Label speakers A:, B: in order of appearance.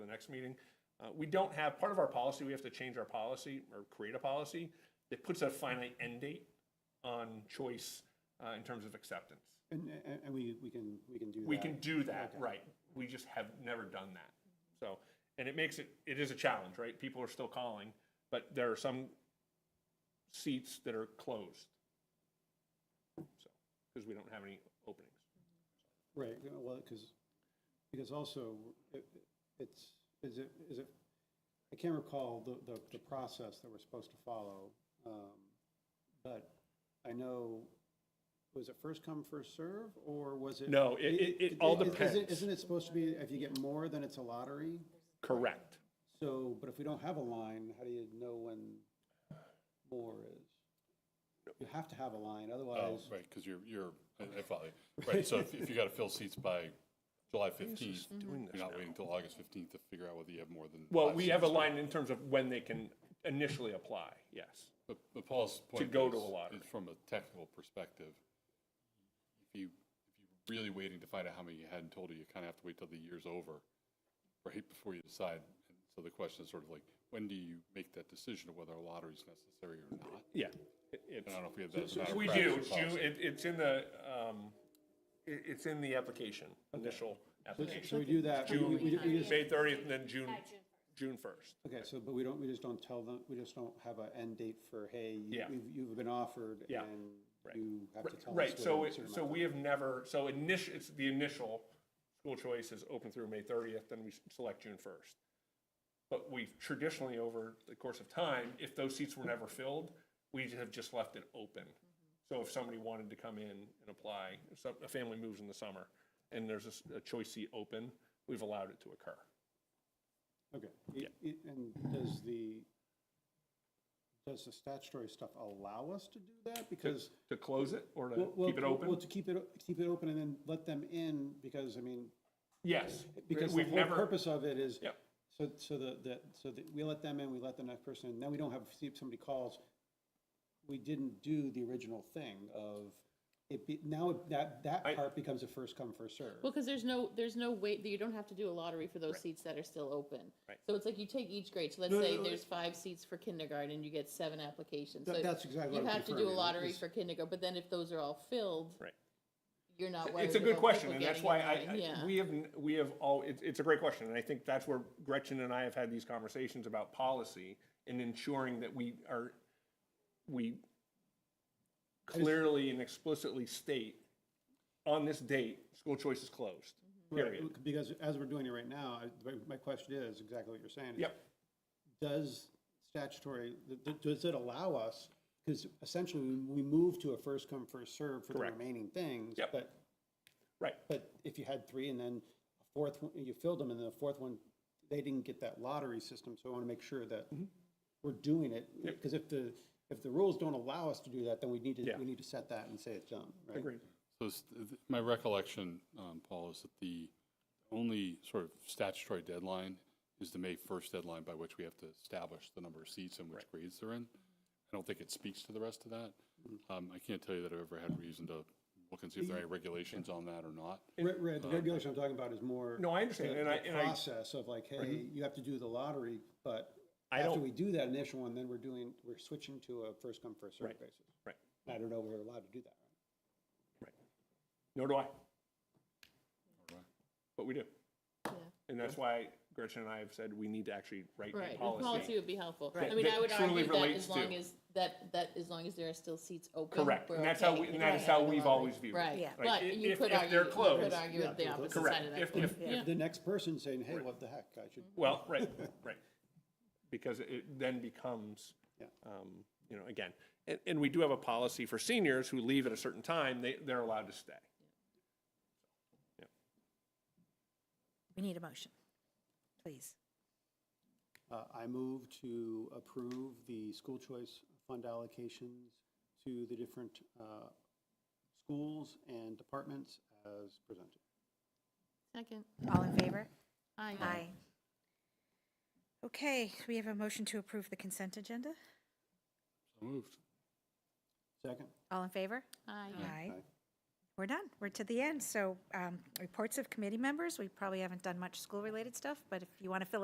A: next meeting. Uh, we don't have, part of our policy, we have to change our policy or create a policy that puts a finite end date on choice, uh, in terms of acceptance.
B: And, and, and we, we can, we can do that.
A: We can do that, right. We just have never done that. So, and it makes it, it is a challenge, right? People are still calling, but there are some seats that are closed. So, because we don't have any openings.
B: Right, you know, well, because, because also, it- it's, is it, is it, I can't recall the, the, the process that we're supposed to follow. um, But I know, was it first come, first serve, or was it?
A: No, it, it, it all
B: Is- is it-
A: depends.
B: Isn't it supposed to be, if you get more, then it's a lottery?
A: Correct.
B: So, but if we don't have a line, how do you know when more is? You have to have a line,
C: Oh,
B: otherwise,
C: right, because you're, you're, I I follow you. Right, so if if you got to fill seats by July 15th,
A: doing this
C: you're not waiting till August 15th to figure out whether you have more than.
A: Well,
C: five
A: we have a
C: seats.
A: line in terms of when they can initially apply, yes.
C: But but Paul's point.
A: go to
C: is-
A: a lottery.
C: Is from a technical perspective, if you, if you're really waiting to find out how many you had in total, you kind of have to wait till the year's over, right, before you decide. And So the question is sort of like, when do you make that decision of whether a lottery is necessary or not?
A: Yeah. It- it's-
C: I don't know if we have that as a matter of
A: We
C: practice
A: do,
C: or
A: it's,
C: policy.
A: you- it- it's in the, um, it, it's in the application, initial
B: so we
A: application.
B: do that. we- we- we- we just-
A: May thirtieth and then June, June first.
B: Okay, so, but we don't, we just don't tell them, we just don't have an end date for, hey, you-
A: Yeah.
B: you've, you've been offered
A: Yeah,
B: and you have to tell us.
A: Right, so,
B: within a
A: it-
B: certain
A: so
B: amount
A: we have never, so initial, it's the initial school choice is open through May thirtieth, then we s- select June first. But we've traditionally, over the course of time, if those seats were never filled, we have just left it open.
B: Mm-hmm.
A: So if somebody wanted to come in and apply, if some, a family moves in the summer and there's a s- a choice seat open, we've allowed it to occur.
B: of- Okay, It- it- and does the, does the statutory stuff allow us to do that? Because.
A: To close it or to
B: well, well,
A: keep it
B: Well,
A: open?
B: to keep it, keep it open and then let them in, because, I mean,
A: Yes.
B: because the
A: We've
B: whole
A: never-
B: purpose of it is.
A: Yep.
B: So, so the, the, so that we let them in, we let the next person in, then we don't have, see if somebody calls. We didn't do the original thing of, it be, now that, that
A: I-
B: part becomes a first come, first serve.
D: Well, because there's no, there's no wait, that you don't have to do a lottery for those seats that are still open.
A: Right.
D: So it's like you take each grade, so let's
B: No,
D: say
B: no,
D: there's five seats for kindergarten, you get seven applications.
B: Th-
D: So
B: that's exactly
D: You
B: what I'm
D: have to do
B: referring
D: a
B: to,
D: lottery
B: is-
D: for kindergarten, but then if those are all filled,
A: Right.
D: you're not worried
A: It's a
D: about
A: good question,
D: people
A: and that's
D: getting
A: why
D: in
A: I,
D: line.
A: I-
D: Yeah.
A: we have, n- we have all, it's, it's a great question, and I think that's where Gretchen and I have had these conversations about policy and ensuring that we are, we clearly and explicitly state, on this date, school choice is closed, period.
B: Because as we're doing it right now, I- my, my question is exactly what you're saying. is
A: Yep,
B: Does statutory, th- th- does it allow us, because essentially we we move to a first come, first serve for the
A: Correct.
B: remaining things.
A: Yep.
B: But
A: right,
B: But if you had three and then a fourth, one- you filled them and then the fourth one, they didn't get that lottery system, so I want to make sure that
A: Mm-hmm.
B: we're doing it. Because if the, if the rules don't allow us to do that, then we need to,
A: Yeah.
B: we need to set that and say it's done, right?
A: agreed.
C: So s- th- my recollection, um, Paul, is that the only sort of statutory deadline is the May 1st deadline by which we have to establish the number of seats and which grades they're in. I don't think it speaks to the rest of that. Um, I can't tell you that I've ever had reason to look and see if there are any regulations on that or not.
B: Right, right, the regulation I'm talking about is more.
A: No, I understand,
B: the-
A: and I-
B: the
A: and I- Mm-hmm.
B: Process of like, hey, you have to do the lottery, but
A: I
B: after
A: don't-
B: we do that initial one, then we're doing, we're switching to a first come, first served basis.
A: Right,
B: I don't know if we're allowed to do that.
A: right. Nor do I,
C: Right.
A: but we do.
D: Yeah.
A: And that's why Gretchen and I have said we need to actually write a
D: Right, the policy
A: policy.
D: would be helpful.
A: Right.
D: I mean,
A: That
D: I would
A: truly
D: argue that
A: relates
D: as long
A: to-
D: as, that, that, as long as there are still seats open.
A: Correct,
D: we're
A: and that's how,
D: okay.
A: we- and that is how we've always viewed it.
D: Right,
E: Like,
D: but
A: if-
D: you
A: if-
D: could
A: if
D: argue,
A: they're
D: you
A: closed-
D: could argue
B: Yeah,
D: the
B: they're
D: opposite
A: Correct.
D: side of that.
A: If, if,
D: Yeah.
B: The next person saying, hey, what the heck, I should.
A: Well, right, right. Because it then becomes,
B: Yeah.
A: um, you know, again, and, and we do have a policy for seniors who leave at a certain time, they, they're allowed to stay.
E: We need a motion, please.
B: Uh, I move to approve the school choice fund allocations to the different uh, schools and departments as presented.
D: Second,
E: All in favor?
D: aye.
E: Okay, so we have a motion to approve the consent agenda.
C: So moved.
B: Second?
E: All in favor?
D: Aye.
E: Aye.
B: Aye.
E: We're done. We're to the end. So um, reports of committee members, we probably haven't done much school-related stuff, but if you want to fill